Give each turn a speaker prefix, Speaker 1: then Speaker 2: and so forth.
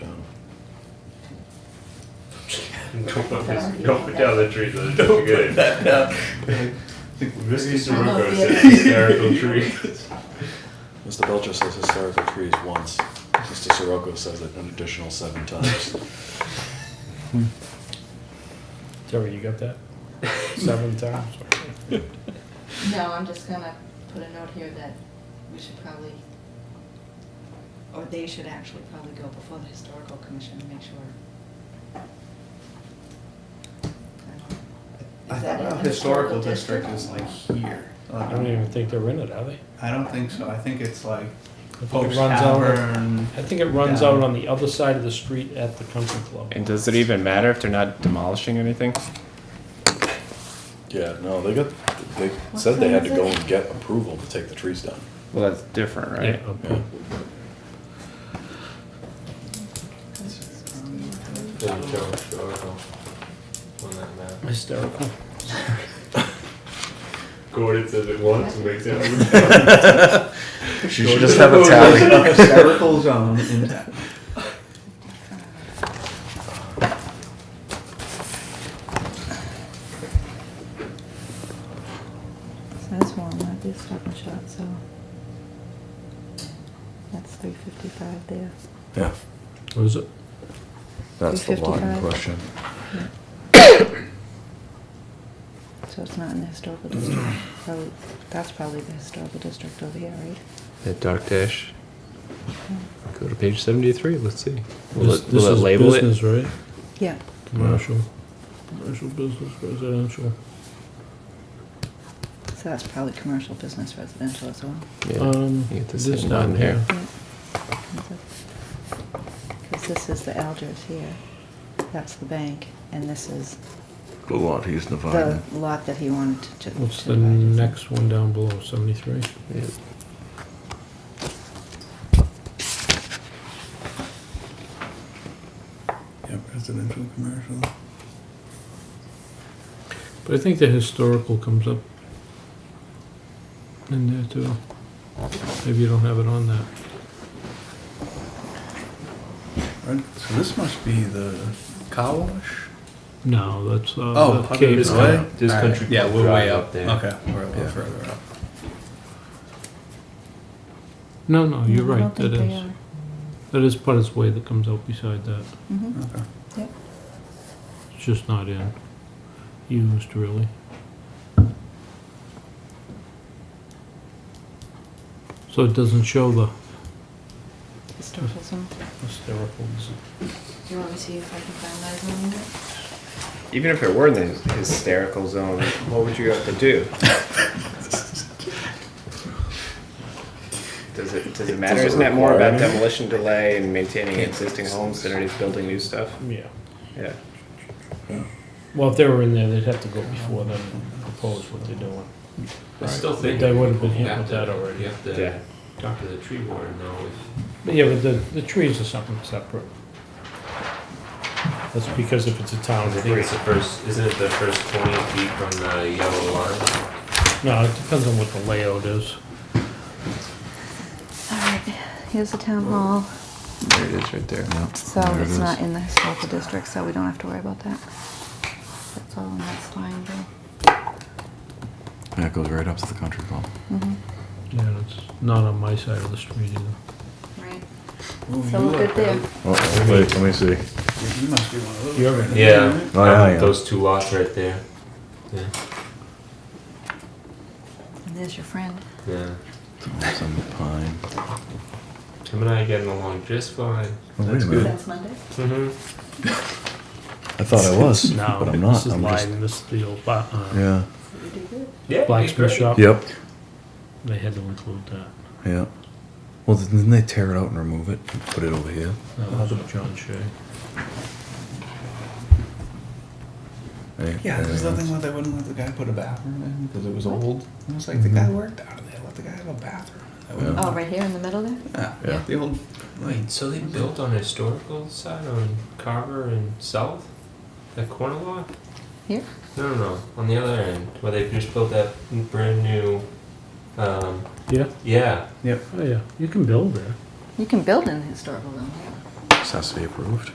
Speaker 1: Um,
Speaker 2: Don't put, this, don't put down the tree. That's don't good.
Speaker 1: that down.
Speaker 2: Misty
Speaker 3: I'm not
Speaker 2: Sirocco
Speaker 3: the
Speaker 2: said
Speaker 3: other-
Speaker 2: hysterical tree.
Speaker 1: Mr. Belcher says historical trees once. Mr. Sirocco says it an additional seven times.
Speaker 4: Terry, you got that? Seven times?
Speaker 3: No, I'm just gonna put a note here that we should probably, or they should actually probably go before the historical commission to make sure.
Speaker 5: I
Speaker 3: Is
Speaker 5: thought
Speaker 3: that in
Speaker 5: our
Speaker 3: the
Speaker 5: historical
Speaker 3: historical
Speaker 5: district
Speaker 3: district?
Speaker 5: is like here.
Speaker 4: I don't even think they're in it, are they?
Speaker 5: I don't think so, I think it's like
Speaker 4: I think it
Speaker 5: Pope's
Speaker 4: runs out-
Speaker 5: Tavern.
Speaker 4: I think it runs
Speaker 5: Yeah.
Speaker 4: out on the other side of the street at the country club.
Speaker 6: And does it even matter if they're not demolishing anything?
Speaker 1: Yeah, no, they got, they said they had to go and get approval to take the trees down.
Speaker 6: Well, that's different, right?
Speaker 4: Yeah, okay.
Speaker 1: Yeah.
Speaker 4: Hysterical.
Speaker 2: Gordon says it once and makes it.
Speaker 1: She should just have a tally.
Speaker 5: Historical zone in.
Speaker 3: That's one, that'd be a stop and shop, so. That's three fifty-five there.
Speaker 1: Yeah,
Speaker 4: What is it?
Speaker 1: that's the lot in
Speaker 3: 255.
Speaker 1: question.
Speaker 3: So it's not in the historical district, probably, that's probably the historical district over here, right?
Speaker 2: That dark dash. Go to page 73. Let's see.
Speaker 4: This- this is Business, right?
Speaker 3: Yeah.
Speaker 4: Commercial, commercial business, residential.
Speaker 3: So that's probably commercial, business, residential as well.
Speaker 4: Um,
Speaker 6: You get the
Speaker 4: this
Speaker 6: same
Speaker 4: not
Speaker 6: one here.
Speaker 3: Because this is the Elders here, that's the bank, and this is
Speaker 1: The lot he's
Speaker 3: the lot that he wanted to. to
Speaker 4: What's the
Speaker 3: divide, isn't it?
Speaker 4: next one down below, seventy-three?
Speaker 6: Yeah.
Speaker 5: Yeah, residential, commercial.
Speaker 4: But I think the historical comes up in there too. Maybe you don't have it on that.
Speaker 5: Right, So this must be the car wash?
Speaker 4: No, that's, uh.
Speaker 5: Oh,
Speaker 4: the
Speaker 5: up
Speaker 4: cave
Speaker 5: this
Speaker 4: guy.
Speaker 5: way?
Speaker 2: This
Speaker 5: All
Speaker 2: country
Speaker 5: right, Yeah,
Speaker 2: club
Speaker 5: we're way
Speaker 2: drive
Speaker 5: up
Speaker 2: up
Speaker 5: there.
Speaker 2: there.
Speaker 5: Okay, we're a little
Speaker 2: Yeah.
Speaker 5: further up.
Speaker 4: No, no, you're
Speaker 3: No, I
Speaker 4: right,
Speaker 3: don't
Speaker 4: that
Speaker 3: think they
Speaker 4: is,
Speaker 3: are.
Speaker 4: that is part of its way that comes out beside that,
Speaker 3: Mhm.
Speaker 5: Okay.
Speaker 4: it's just not in, used really. So it doesn't show the
Speaker 3: Historical zone.
Speaker 4: historical,
Speaker 3: Do you want me to see if I can find that zone yet?
Speaker 6: Even if it were in the hysterical zone, what would you have to do? Does it, does it matter?
Speaker 1: Does it
Speaker 6: Isn't that more
Speaker 1: require
Speaker 6: about
Speaker 1: any?
Speaker 6: demolition delay and maintaining existing homes than it is building new stuff?
Speaker 4: yeah.
Speaker 6: Yeah.
Speaker 4: Well, if they were in there, they'd have to go before them and propose what they're doing.
Speaker 7: I still
Speaker 4: They-
Speaker 7: think.
Speaker 4: they would've been hit
Speaker 7: you have
Speaker 4: with that
Speaker 7: to-
Speaker 4: already.
Speaker 7: You have
Speaker 6: Yeah.
Speaker 7: to talk to the tree warden though, if,
Speaker 4: But yeah, but the, the trees are something separate. That's because if it's a town
Speaker 7: I think
Speaker 4: tree,
Speaker 7: it's the first, isn't it the first twenty feet from the yellow line?
Speaker 4: no, it depends on what the layout is.
Speaker 3: All right, here's the town hall,
Speaker 6: There it is right there.
Speaker 3: so
Speaker 1: There it
Speaker 3: it's
Speaker 1: is.
Speaker 3: not in the historical district, so we don't have to worry about that. That's all in that line there.
Speaker 1: Yeah, it goes right up to the country club.
Speaker 3: Mhm.
Speaker 4: Yeah, it's not on my side of the street either.
Speaker 3: Right,
Speaker 5: Ooh,
Speaker 3: so
Speaker 5: you
Speaker 3: we're
Speaker 5: are-
Speaker 3: good there.
Speaker 8: Oh, wait, let me see.
Speaker 5: You must be one of those.
Speaker 4: You're
Speaker 5: right?
Speaker 7: Yeah.
Speaker 8: Oh, yeah,
Speaker 7: um,
Speaker 8: yeah.
Speaker 7: Those two lots right there. Yeah,
Speaker 3: And there's your friend.
Speaker 7: yeah.
Speaker 1: Some pine.
Speaker 7: Tim and I getting along just fine.
Speaker 8: Oh, wait a minute.
Speaker 3: That's Monday?
Speaker 7: Mm-hmm.
Speaker 1: I thought I was,
Speaker 4: No,
Speaker 1: but I'm not.
Speaker 4: This is
Speaker 1: I'm just-
Speaker 4: lying, this is the old, ba- uh,
Speaker 1: Yeah,
Speaker 3: You do good.
Speaker 7: Yeah.
Speaker 4: blacksmith shop,
Speaker 1: yep,
Speaker 4: they had to include that.
Speaker 1: yep. Well, didn't they tear it out and remove it, and put it over here?
Speaker 4: That was with John Shea.
Speaker 1: Any-
Speaker 5: Yeah,
Speaker 1: anything
Speaker 5: there's nothing
Speaker 1: else?
Speaker 5: where they wouldn't let the guy put a bathroom in because it was old. And it's like the guy worked out of there, let the guy have a bathroom. That wouldn't-
Speaker 3: Oh, right here in the middle there?
Speaker 5: Yeah,
Speaker 3: Yeah.
Speaker 5: the old like
Speaker 7: Wait, so they built on historical side on Carver and South? That corner lot?
Speaker 3: Here?
Speaker 7: No, no, no, on the other end, where they just built that brand new, um,
Speaker 4: Yeah,
Speaker 7: yeah.
Speaker 4: oh yeah, you can build there.
Speaker 3: You can build in the historical zone, yeah.
Speaker 1: This has to be approved.